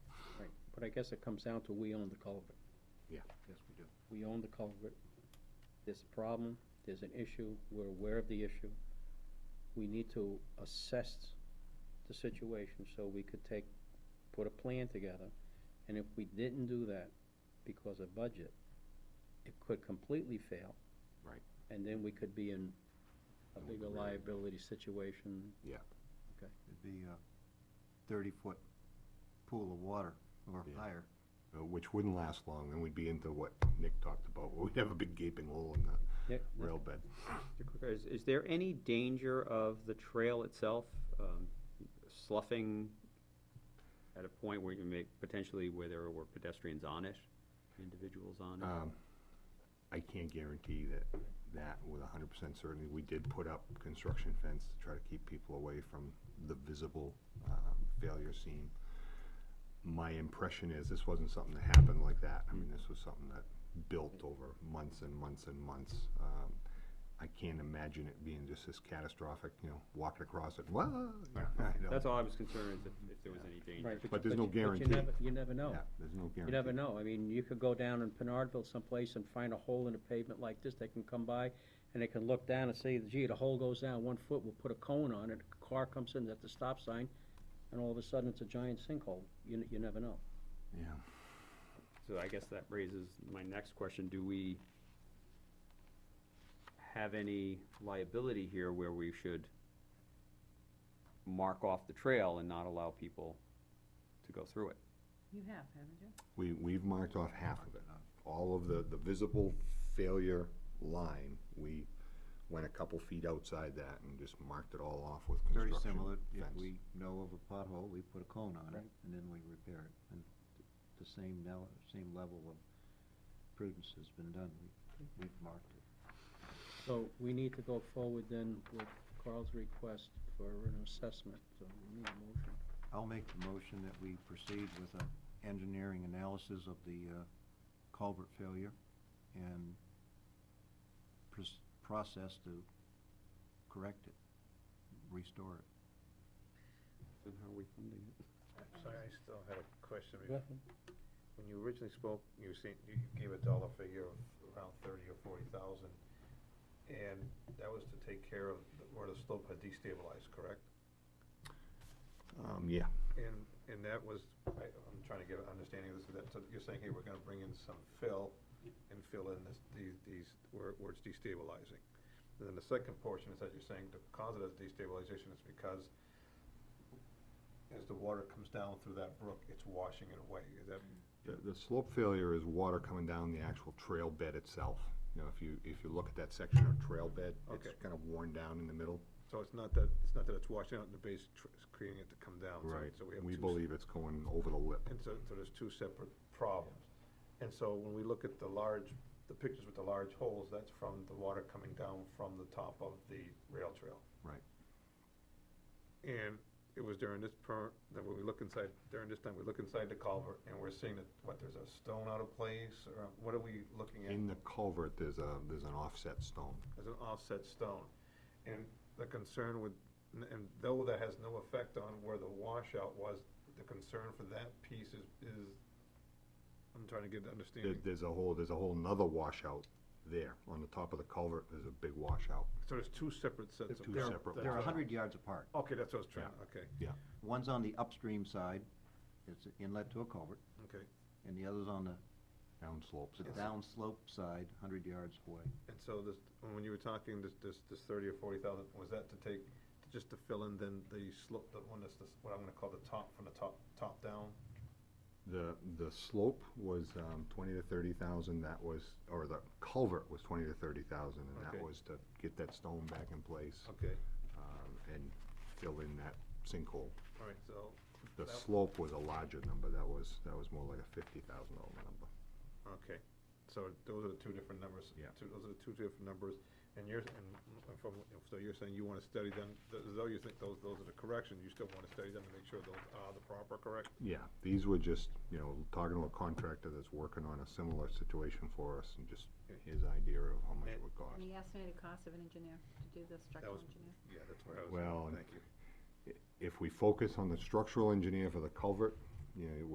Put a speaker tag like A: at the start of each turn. A: but I guess it comes down to we own the culvert.
B: Yeah, yes, we do.
A: We own the culvert. There's a problem, there's an issue, we're aware of the issue. We need to assess the situation so we could take, put a plan together. And if we didn't do that because of budget, it could completely fail.
B: Right.
A: And then we could be in a
B: And we
A: bigger
B: could really-
A: liability situation.
C: It'd be a thirty-foot pool of water or
B: Yeah.
C: higher.
B: Uh, Which wouldn't last long, then we'd be into what Nick talked about, where we'd have a big gaping hole in the
A: Nick?
B: rail bed.
D: Mr. Quicker, Is, is there any danger of the trail itself um, sloughing at a point where you make, potentially where there were pedestrians on it, individuals on it?
B: Um, I can't guarantee that, that with hundred percent certainty. We did put up construction fence to try to keep people away from the visible, um, failure scene. My impression is this wasn't something that happened like that. I mean, this was something that built over months and months and months. Um, I can't imagine it being just this catastrophic, you know, walking across it, whoa.
D: That's all I was concerned, is if, if there was any danger.
A: Right,
B: But there's no
A: you- you
B: guarantee.
A: never- You never know.
B: Yeah, there's no
A: You
B: guarantee.
A: never know. I mean, you could go down in Pinardville someplace and find a hole in the pavement like this. They can come by and they can look down and say, gee, the hole goes down one foot, we'll put a cone on it. A car comes in at the stop sign and all of a sudden it's a giant sinkhole. You, n- you never know.
B: Yeah.
D: So I guess that raises my next question, do we have any liability here where we should mark off the trail and not allow people to go through it?
E: You have, haven't you?
B: We, we've marked off half of it. All of the, the visible failure line, we went a couple feet outside that and just marked it all off with
C: Very
B: construction
C: similar, if
B: fence.
C: we know of a pothole, we put a cone on it,
A: Right.
C: and then we repair it. And th- the same now, same level of prudence has been done, we, we've marked it.
A: So we need to go forward then with Carl's request for an assessment. So we need a motion.
C: I'll make the motion that we proceed with an engineering analysis of the uh, culvert failure and pros- process to correct it, restore it.
D: And how are we funding it?
F: I'm sorry, I still had a question.
A: Go
F: When
A: ahead.
F: you originally spoke, you said, you gave a dollar figure of around thirty or forty thousand, and that was to take care of the- where the slope had destabilized, correct?
B: Um, yeah,
F: And, and that was, I, I'm trying to get an understanding of this, that, so you're saying, hey, we're gonna bring in some fill and fill in this, these, these, where, where it's destabilizing. And then the second portion is that you're saying the cause of that destabilization is because as the water comes down through that brook, it's washing it away, is that?
B: the, the slope failure is water coming down the actual trail bed itself. You know, if you, if you look at that section of trail bed, it's
F: Okay.
B: kind of worn down in the middle.
F: So it's not that, it's not that it's washing out in the base, tr- it's creating it to come down. so- So we have
B: We
F: two s-
B: believe it's going over the lip.
F: And so, so there's two separate problems. And so when we look at the large, the pictures with the large holes, that's from the water coming down from the top of the rail trail.
B: Right.
F: And it was during this per, that when we look inside, during this time, we look inside the culvert and we're seeing that, what, there's a stone out of place or what are we looking at?
B: In the culvert, there's a, there's an offset stone.
F: as an offset stone. And the concern with, and though that has no effect on where the washout was, the concern for that piece is, is, I'm trying to get
B: There,
F: an understanding.
B: there's a whole, there's a whole nother washout there. On the top of the culvert, there's a big washout.
F: So there's two separate sets of.
B: Two
F: They're-
B: separate
F: that's
C: They're
F: what I-
C: a hundred yards apart.
F: Okay, that's what I was trying, okay,
B: Yeah.
C: One's on the upstream side, it's an inlet to a culvert,
F: okay.
C: and the other's on the
B: Down slopes.
C: the downslope side, hundred yards away.
F: And so this, when you were talking, this, this, this thirty or forty thousand, was that to take, just to fill in then the slope, the one that's, this- what I'm gonna call the top, from the top, top down?
B: The, the slope was um, twenty to thirty thousand, that was, or the culvert was twenty to thirty thousand, and that
F: Okay.
B: was to get that stone back in place,
F: Okay,
B: um, and fill in that sinkhole.
F: all right, so,
B: The
F: That-
B: slope was a larger number, that was, that was more like a fifty thousand dollar number.
F: Okay, so those are the two different numbers.
B: Yeah.
F: two- Those are the two different numbers, and you're, and m- from, so you're saying you wanna study them, th- though you think those, those are the correction, you still wanna study them to make sure those are the proper correct?
B: Yeah, these were just, you know, talking to a contractor that's working on a similar situation for us, and just his idea of how much it would cost.
E: And the estimated cost of an engineer to do the structural
F: was-
E: engineer?
F: Yeah, that's what I was.
B: Well, and-
F: Thank you.
B: If we focus on the structural engineer for the culvert, you know,